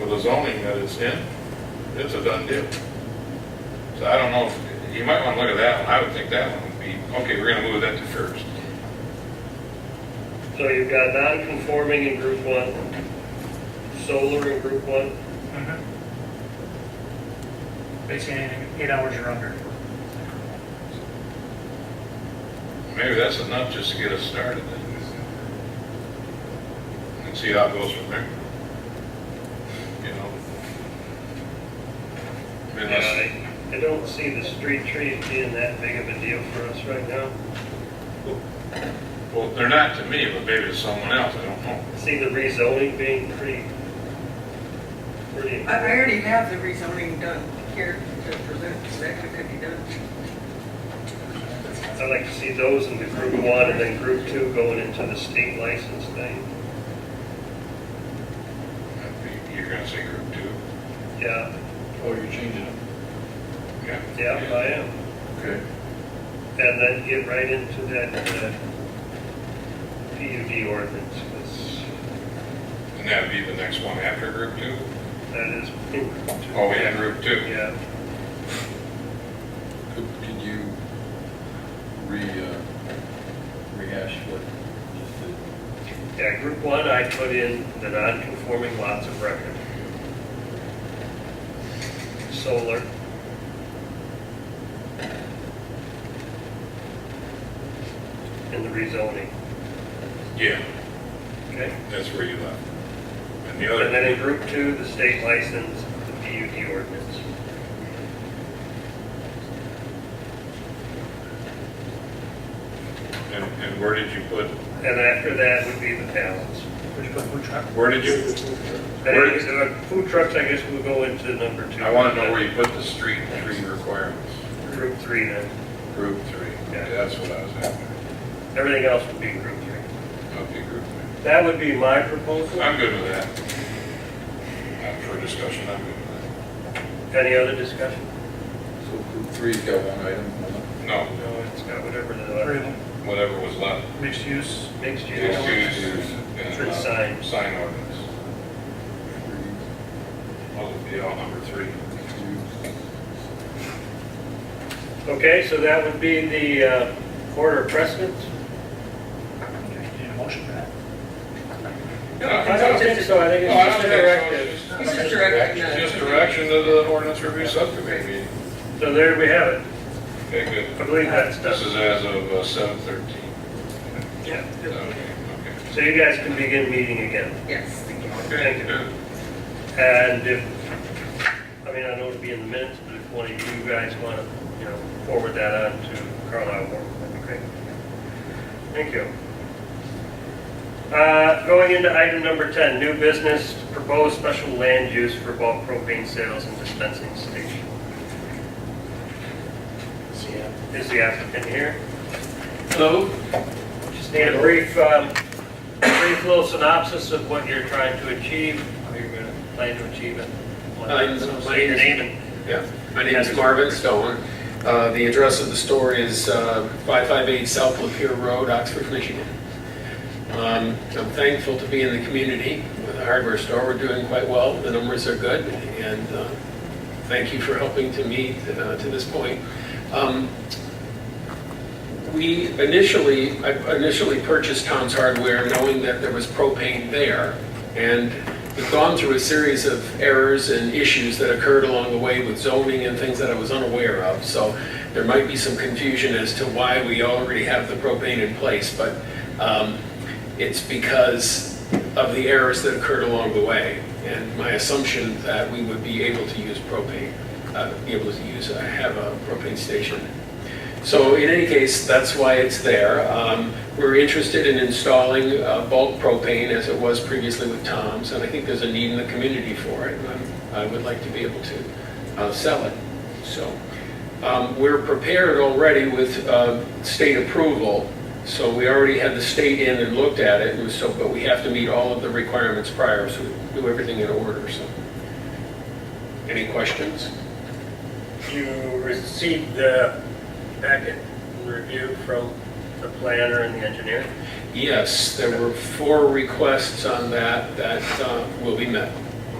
with the zoning that it's in, it's a done deal. So I don't know, if- you might want to look at that one, I would think that one would be, okay, we're gonna move that to first. So you've got non-conforming in group one, solar in group one, Mhm. Mm-hmm. Basically, anything eight hours or under. Maybe that's enough just to get us started then. And see how it goes from there. You know? I mean, Yeah, that's- I I don't see the street trees being that big of a deal for us right now. Well, they're not to me, but maybe to someone else, I don't know. I See the rezoning being pretty, pretty. I I already have the rezoning done here to present, so that could be done. I'd like to see those in the group one and then group two going into the state license thing. That'd be- You're gonna say group two? Yeah, Oh, you're changing it. Yeah. yeah, I am. Okay. And then get right into that uh, PUD ordinance, 'cause And that'd be the next one after group two? that is. Oh, yeah, group two. Yeah, Could, could you re, uh, rehash what just did? yeah, group one, I put in the non-conforming lots of record. Solar. And the rezoning, Yeah, okay? that's where you left. And the And then in other, group two, the state license, the PUD ordinance. and, and where did you put, And after that would be the balance. Which, which, where did you, Then Where- uh, food trucks, I guess, will go into number two. I wanna know where you put the street tree requirements. Group three then. Group three, yeah, that's what I was after. Everything else would be group three. Okay, group three. That would be my proposal. I'm good with that. Uh, For discussion, I'm good with Any other discussion? So group three's got one item, one that. No, No, it's got whatever three of the them, whatever was left. mixed use, mixed use. Mixed use For and, the uh, sign. Sign ordinance. three, Those would be all number three. two. Okay, so that would be the uh, order of precedence? need a motion for that. No, Uh, I don't it's think just- so, I think No, I don't it's just think so. directive. It's just directing that. Just direction to the ordinance review subcommittee meeting. So there we have it. Okay, good. I believe that's This done. is as of uh, seven thirteen. Yeah, Okay, good. okay. So you guys can begin meeting again. Yes, thank you. Okay, good. And if, I mean, I know it'll be in the minutes, but if one of you guys want to, you know, forward that on to Carlisle Board, that'd be great. Thank you. Uh, Going into item number 10, new business, proposed special land use for bulk propane sales and dispensing station. Is the applicant here? Hello. Just need a brief, um, brief little synopsis of what you're trying to achieve, how you're going to plan to achieve it. Uh, my name is- Name and Yeah, my name is Marvin Stone. Uh, The address of the store is uh, 558 South Lapeer Road, Oxford, Michigan. Um, I'm thankful to be in the community with a hardware store. We're doing quite well, the numbers are good, and uh, thank you for helping to me uh, to this point. Um, We initially, I initially purchased Tom's Hardware knowing that there was propane there. And we've gone through a series of errors and issues that occurred along the way with zoning and things that I was unaware of. So there might be some confusion as to why we already have the propane in place, but um, it's because of the errors that occurred along the way. And my assumption that we would be able to use propane, uh, be able to use, uh, have a propane station so in any case, that's why it's there. Um, We're interested in installing uh, bulk propane as it was previously with Tom's, and I think there's a need in the community for it. and I'm- I would like to be able to uh, sell it. So um, we're prepared already with uh, state approval. So we already had the state in and looked at it, and so, but we have to meet all of the requirements prior, so we do everything in order, so. Any questions? You received the packet review from the planner and the engineer? Yes, there were four requests on that that uh, will be met.